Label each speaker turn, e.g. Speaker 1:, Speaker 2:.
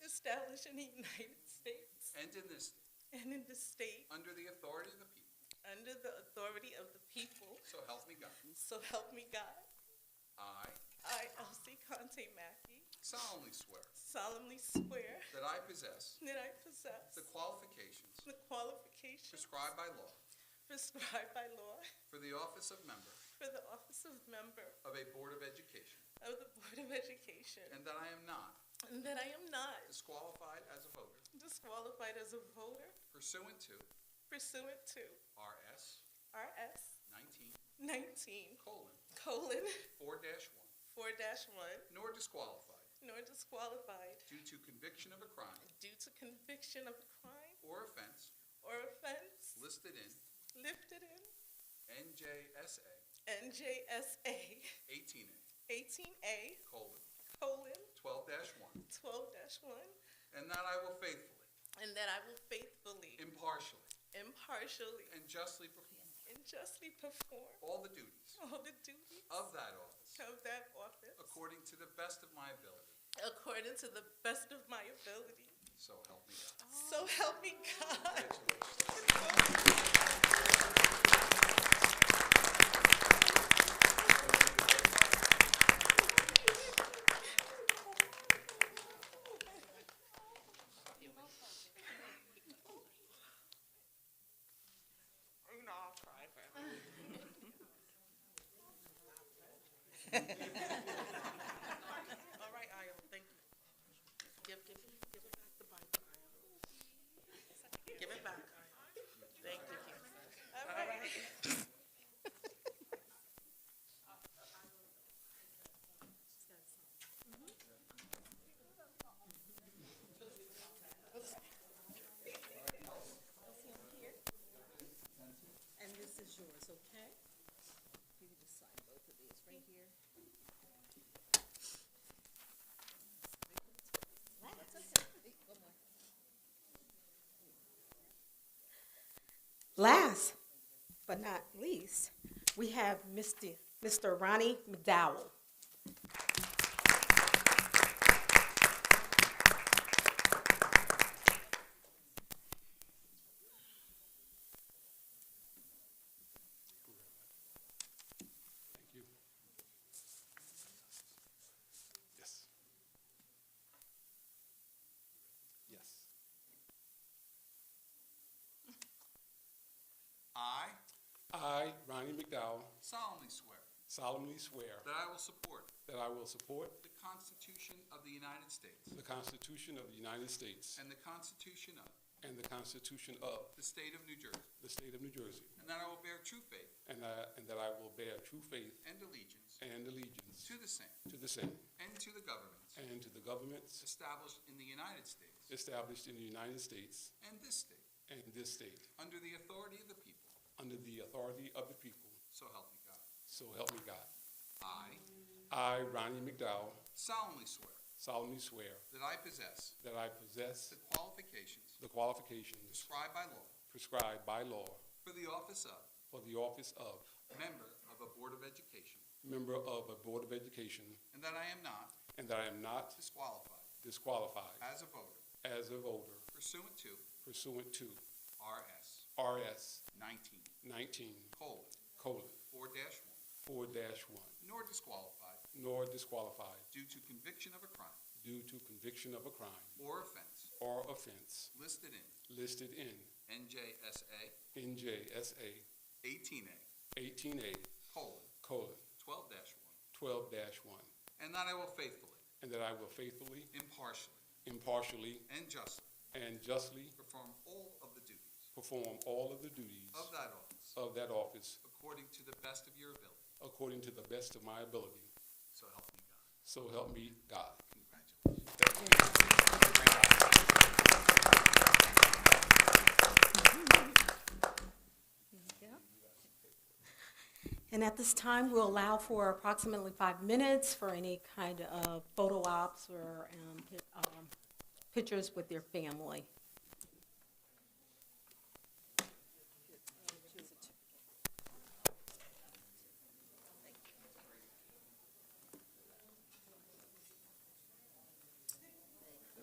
Speaker 1: established in the United States
Speaker 2: and in this state,
Speaker 1: and in the state
Speaker 2: under the authority of the people.
Speaker 1: under the authority of the people.
Speaker 2: So help me God.
Speaker 1: So help me God.
Speaker 2: I
Speaker 1: I, Elsie Conte Mackey,
Speaker 2: solemnly swear
Speaker 1: solemnly swear
Speaker 2: that I possess
Speaker 1: that I possess
Speaker 2: the qualifications
Speaker 1: the qualifications
Speaker 2: prescribed by law
Speaker 1: prescribed by law
Speaker 2: for the office of member
Speaker 1: for the office of member
Speaker 2: of a Board of Education,
Speaker 1: of the Board of Education,
Speaker 2: and that I am not
Speaker 1: and that I am not
Speaker 2: disqualified as a voter
Speaker 1: disqualified as a voter
Speaker 2: pursuant to
Speaker 1: pursuant to
Speaker 2: RS
Speaker 1: RS
Speaker 2: 19
Speaker 1: 19
Speaker 2: colon
Speaker 1: colon
Speaker 2: 4 1,
Speaker 1: 4 1,
Speaker 2: nor disqualified
Speaker 1: nor disqualified
Speaker 2: due to conviction of a crime
Speaker 1: due to conviction of a crime
Speaker 2: or offense
Speaker 1: or offense
Speaker 2: listed in
Speaker 1: lifted in
Speaker 2: NJSA
Speaker 1: NJSA
Speaker 2: 18A
Speaker 1: 18A
Speaker 2: colon
Speaker 1: colon
Speaker 2: 12 1,
Speaker 1: 12 1,
Speaker 2: and that I will faithfully,
Speaker 1: and that I will faithfully,
Speaker 2: impartially,
Speaker 1: impartially,
Speaker 2: and justly perform
Speaker 1: and justly perform
Speaker 2: all the duties
Speaker 1: all the duties
Speaker 2: of that office
Speaker 1: of that office
Speaker 2: according to the best of my ability.
Speaker 1: according to the best of my ability.
Speaker 2: So help me God.
Speaker 1: So help me God.
Speaker 2: Congratulations.
Speaker 1: You know, I'll cry for him. All right, Ayo, thank you. Give, give, it- give it back the Bible, Ayo. Give it back, Ayo. Thank you. All right.
Speaker 3: And this is yours, okay? You can just sign both of these right here. That's okay. One more.
Speaker 4: Last but not least, we have Mr. Mr. Ronnie McDowell.
Speaker 5: Yes. Yes.
Speaker 2: I
Speaker 5: I, Ronnie McDowell,
Speaker 2: solemnly swear
Speaker 5: solemnly swear
Speaker 2: that I will support
Speaker 5: that I will support
Speaker 2: the Constitution of the United States
Speaker 5: the Constitution of the United States
Speaker 2: and the Constitution of
Speaker 5: and the Constitution of
Speaker 2: the State of New Jersey,
Speaker 5: the State of New Jersey,
Speaker 2: and that I will bear true faith
Speaker 5: and that, and that I will bear true faith
Speaker 2: and allegiance
Speaker 5: and allegiance
Speaker 2: to the same
Speaker 5: to the same
Speaker 2: and to the governments
Speaker 5: and to the governments
Speaker 2: established in the United States
Speaker 5: established in the United States
Speaker 2: and this state
Speaker 5: and this state
Speaker 2: under the authority of the people.
Speaker 5: under the authority of the people,
Speaker 2: So help me God.
Speaker 5: so help me God.
Speaker 2: I
Speaker 5: I, Ronnie McDowell,
Speaker 2: solemnly swear
Speaker 5: solemnly swear
Speaker 2: that I possess
Speaker 5: that I possess
Speaker 2: the qualifications
Speaker 5: the qualifications
Speaker 2: prescribed by law
Speaker 5: prescribed by law
Speaker 2: for the office of
Speaker 5: for the office of
Speaker 2: member of a Board of Education,
Speaker 5: member of a Board of Education
Speaker 2: and that I am not
Speaker 5: and that I am not
Speaker 2: disqualified
Speaker 5: disqualified
Speaker 2: as a voter
Speaker 5: as a voter
Speaker 2: pursuant to
Speaker 5: pursuant to
Speaker 2: RS
Speaker 5: RS
Speaker 2: 19
Speaker 5: 19
Speaker 2: colon 4 1,
Speaker 5: 4-1,
Speaker 2: nor disqualified
Speaker 5: nor disqualified
Speaker 2: due to conviction of a crime
Speaker 5: due to conviction of a crime
Speaker 2: or offense
Speaker 5: or offense
Speaker 2: listed in
Speaker 5: listed in
Speaker 2: NJSA
Speaker 5: NJSA
Speaker 2: 18A
Speaker 5: 18A
Speaker 2: colon 12 1,
Speaker 5: 12-1,
Speaker 2: and that I will faithfully,
Speaker 5: and that I will faithfully,
Speaker 2: impartially,
Speaker 5: impartially,
Speaker 2: and justly
Speaker 5: and justly
Speaker 2: perform all of the duties
Speaker 5: perform all of the duties
Speaker 2: of that office
Speaker 5: of that office
Speaker 2: according to the best of your ability.
Speaker 5: according to the best of my ability.
Speaker 2: So help me God.
Speaker 5: So help me God.
Speaker 2: Congratulations.
Speaker 4: And at this time, we'll allow for approximately five minutes for any kind of photo ops or um, pi- um, pictures with your family.